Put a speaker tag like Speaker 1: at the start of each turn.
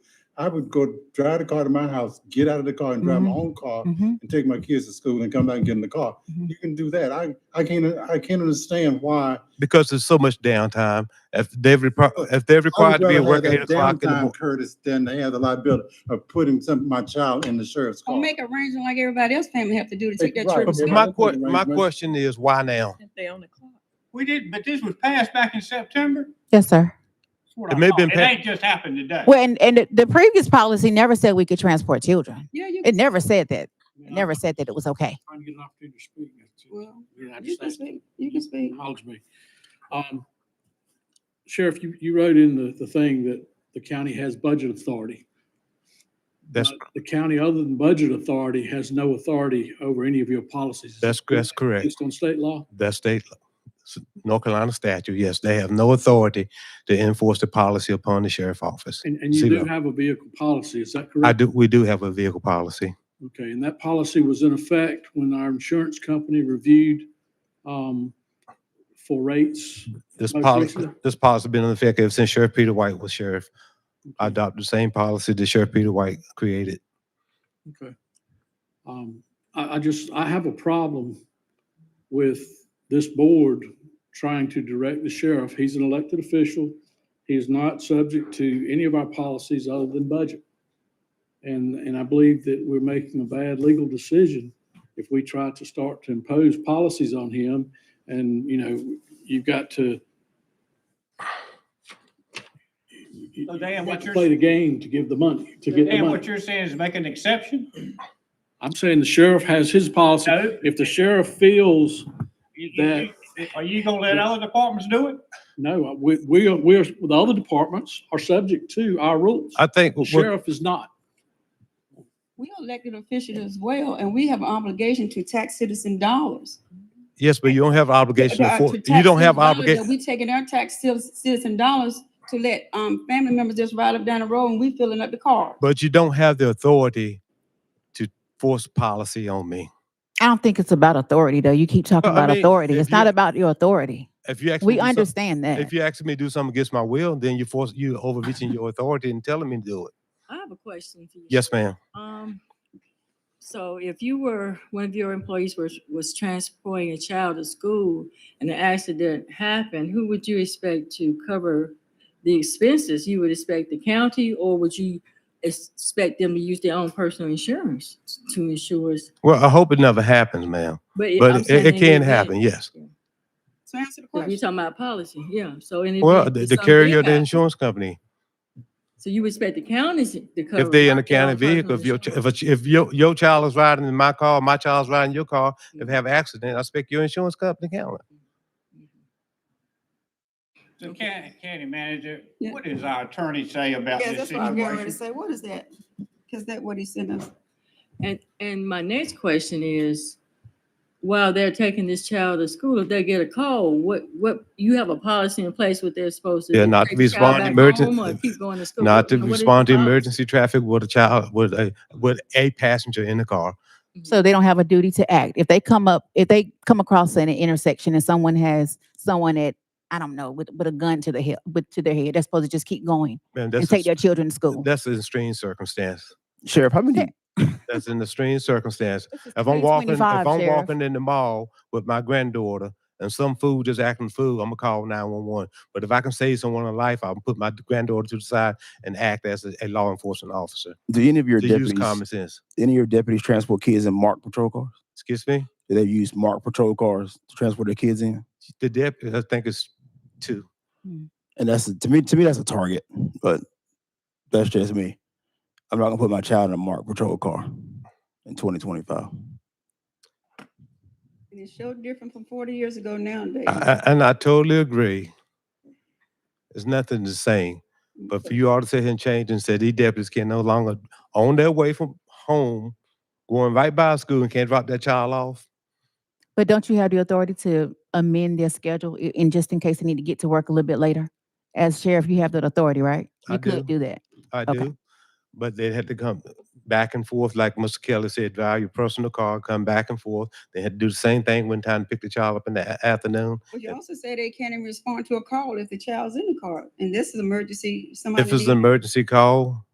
Speaker 1: I would go drive the car to my house, get out of the car and drive my own car
Speaker 2: Mm-hmm.
Speaker 3: Mhm.
Speaker 1: and take my kids to school and come back and get in the car.
Speaker 3: Mhm.
Speaker 1: You can do that. I, I can't, I can't understand why.
Speaker 2: because there's so much downtime. If they're repro- if they're
Speaker 1: I would
Speaker 2: required to be at
Speaker 1: rather
Speaker 2: work
Speaker 1: have
Speaker 2: at eight
Speaker 1: that
Speaker 2: o'clock in the
Speaker 1: downtime,
Speaker 2: morning.
Speaker 1: Curtis, than they have the liability of putting some, my child in the sheriff's
Speaker 4: Or
Speaker 1: car.
Speaker 4: make arrangements like everybody else family have to do to take that
Speaker 1: Right.
Speaker 4: trip.
Speaker 2: But
Speaker 1: Yeah,
Speaker 2: my
Speaker 1: that's
Speaker 2: que-
Speaker 1: the
Speaker 2: my
Speaker 1: arrangement.
Speaker 2: question is why now?
Speaker 4: If they on the clock.
Speaker 5: We did, but this was passed back in September.
Speaker 3: Yes, sir.
Speaker 5: That's what I
Speaker 2: It may have been
Speaker 5: thought. It
Speaker 2: pa-
Speaker 5: ain't just happened today.
Speaker 3: Well, and, and the- the previous policy never said we could transport children.
Speaker 4: Yeah, you,
Speaker 3: It never said that.
Speaker 6: Yeah,
Speaker 3: It never said that it was okay.
Speaker 6: I'm Trying to get an opportunity to speak. That's it.
Speaker 4: well,
Speaker 6: Yeah, I
Speaker 4: you
Speaker 6: just
Speaker 4: can
Speaker 6: asked-
Speaker 4: speak, you can speak.
Speaker 6: acknowledge me. Um, Sheriff, you, you wrote in the, the thing that the county has budget authority.
Speaker 2: That's
Speaker 6: but The county, other than budget authority, has no authority over any of your policies. Is that
Speaker 2: that's that's correct.
Speaker 6: Based on state law?
Speaker 2: That's state law. S- North Carolina statute. Yes, they have no authority to enforce the policy upon the sheriff office.
Speaker 6: And, and you do
Speaker 2: Zero.
Speaker 6: have a vehicle policy, is that correct?
Speaker 2: I do. We do have a vehicle policy.
Speaker 6: Okay, and that policy was in effect when our insurance company reviewed, um, for rates.
Speaker 2: This
Speaker 6: Most
Speaker 2: policy,
Speaker 6: recent-
Speaker 2: this policy been in effect ever since Sheriff Peter White was sheriff. I adopted the same policy that Sheriff Peter White created.
Speaker 6: Okay. Um, I, I just, I have a problem with this board trying to direct the sheriff. He's an elected official. He is not subject to any of our policies other than budget. And, and I believe that we're making a bad legal decision if we try to start to impose policies on him. And, you know, you've got to.
Speaker 5: So Dan, what you're-
Speaker 6: Play the game to give the money, to get the
Speaker 5: And
Speaker 6: money.
Speaker 5: what you're saying is make an exception?
Speaker 6: I'm saying the sheriff has his policy.
Speaker 5: No.
Speaker 6: If the sheriff feels,
Speaker 5: You- you- you- Are you gonna let other departments do it?
Speaker 6: no, we, we are, we're, the other departments are subject to our rules.
Speaker 2: I think
Speaker 6: The
Speaker 2: what-
Speaker 6: sheriff is not.
Speaker 4: We are elected officials as well, and we have an obligation to tax citizen dollars.
Speaker 2: yes, but you don't have obligation to
Speaker 4: Uh,
Speaker 2: enforce.
Speaker 4: to
Speaker 2: You
Speaker 4: tax
Speaker 2: don't have
Speaker 4: citizen dollars that
Speaker 2: obligation.
Speaker 4: We taking our tax citi- citizen dollars to let, um, family members just ride up down the road and we filling up the car.
Speaker 2: But you don't have the authority to force policy on me.
Speaker 3: I don't think it's about authority, though. You keep talking
Speaker 2: Well, I
Speaker 3: about
Speaker 2: mean,
Speaker 3: authority.
Speaker 2: if
Speaker 3: It's not
Speaker 2: you-
Speaker 3: about your authority.
Speaker 2: If you ask me
Speaker 3: We
Speaker 2: to do some-
Speaker 3: understand that.
Speaker 2: If you ask me to do something against my will, then you force you overreaching your authority and telling me to do it.
Speaker 7: I have a question for you.
Speaker 2: Yes, ma'am.
Speaker 7: Um, so if you were, one of your employees was, was transporting a child to school and an accident happened, who would you expect to cover the expenses? You would expect the county or would you expect them to use their own personal insurance to insure? us?
Speaker 2: Well, I hope it never happens, ma'am.
Speaker 7: it-
Speaker 2: But
Speaker 7: I'm
Speaker 2: it-
Speaker 7: saying
Speaker 2: it
Speaker 7: in the
Speaker 2: can
Speaker 7: event-
Speaker 2: happen, yes.
Speaker 4: So answer the
Speaker 7: If You're
Speaker 4: question.
Speaker 7: talking about policy, yeah, so. in
Speaker 2: Well,
Speaker 7: event
Speaker 2: the,
Speaker 7: that
Speaker 2: the
Speaker 7: something
Speaker 2: carrier, of the
Speaker 7: happened-
Speaker 2: insurance company,
Speaker 7: So you expect the counties to cover?
Speaker 2: if they're in a
Speaker 7: not their
Speaker 2: county
Speaker 7: own personal
Speaker 2: vehicle, if your, ch-
Speaker 7: insurance?
Speaker 2: if, a ch- if your, your child is riding in my car, my child's riding your car, if
Speaker 7: Mm-hmm.
Speaker 2: they have an accident, I expect your insurance company to cover it.
Speaker 5: The county, county manager,
Speaker 4: Yeah.
Speaker 5: what does our attorney say about
Speaker 4: Yeah,
Speaker 5: this
Speaker 4: that's what I'm getting ready to
Speaker 5: situation?
Speaker 4: say. What is that? Cause that what he sent us.
Speaker 7: And, and my next question is, while they're taking this child to school, if they get a call, what, what, you have a policy in place what they're supposed to do?
Speaker 2: Yeah, not to
Speaker 7: Take the child
Speaker 2: respond to
Speaker 7: back
Speaker 2: emergen-
Speaker 7: home or Keep going to school.
Speaker 2: Not to
Speaker 7: You know, what is the
Speaker 2: respond to
Speaker 7: policy?
Speaker 2: emergency traffic with a child, with a, with a passenger in the car.
Speaker 3: So they don't have a duty to act. If they come up, if they come across an intersection and someone has someone at, I don't know, with, with a gun to the head, with, to their head, they're supposed to just keep going
Speaker 2: Man,
Speaker 3: and
Speaker 2: that's,
Speaker 3: take
Speaker 2: a-
Speaker 3: their children to school.
Speaker 2: that's an extreme circumstance.
Speaker 8: Sheriff, how many,
Speaker 2: That's an extreme circumstance.
Speaker 3: This is
Speaker 2: If I'm walking, if
Speaker 3: 325,
Speaker 2: I'm
Speaker 3: Sheriff.
Speaker 2: walking in the mall with my granddaughter and some fool just acting fool, I'm gonna call nine one one. But if I can save someone a life, I'll put my granddaughter to the side and act as a, a law enforcement officer.
Speaker 8: do any of your
Speaker 2: To use common
Speaker 8: deputies,
Speaker 2: sense.
Speaker 8: any of your deputies transport kids in marked patrol cars?
Speaker 2: Excuse me?
Speaker 8: Do they use marked patrol cars to transport their kids in?
Speaker 2: The deputy, I think it's two.
Speaker 8: And that's, a- to me, to me, that's a target, but that's just me. I'm not gonna put my child in a marked patrol car in 2025.
Speaker 4: And it's so different from forty years ago nowadays.
Speaker 2: I- I- And I totally agree. There's nothing the same. But for you all to sit here and change and say these deputies can no longer, on their way from home, going right by a school and can't drop that child off,
Speaker 3: But don't you have the authority to amend their schedule i- in just in case they need to get to work a little bit later? As sheriff, you have that authority, right?
Speaker 2: I
Speaker 3: You could do that.
Speaker 2: I
Speaker 3: Okay.
Speaker 2: do. But they had to come back and forth, like Mr. Kelly said, drive your personal car, come back and forth. They had to do the same thing one time, pick the child up in the a- afternoon.
Speaker 4: But you also say they can't even respond to a call if the child's in the car, and this is emergency, somebody.
Speaker 2: If it's
Speaker 4: needs-
Speaker 2: an emergency call,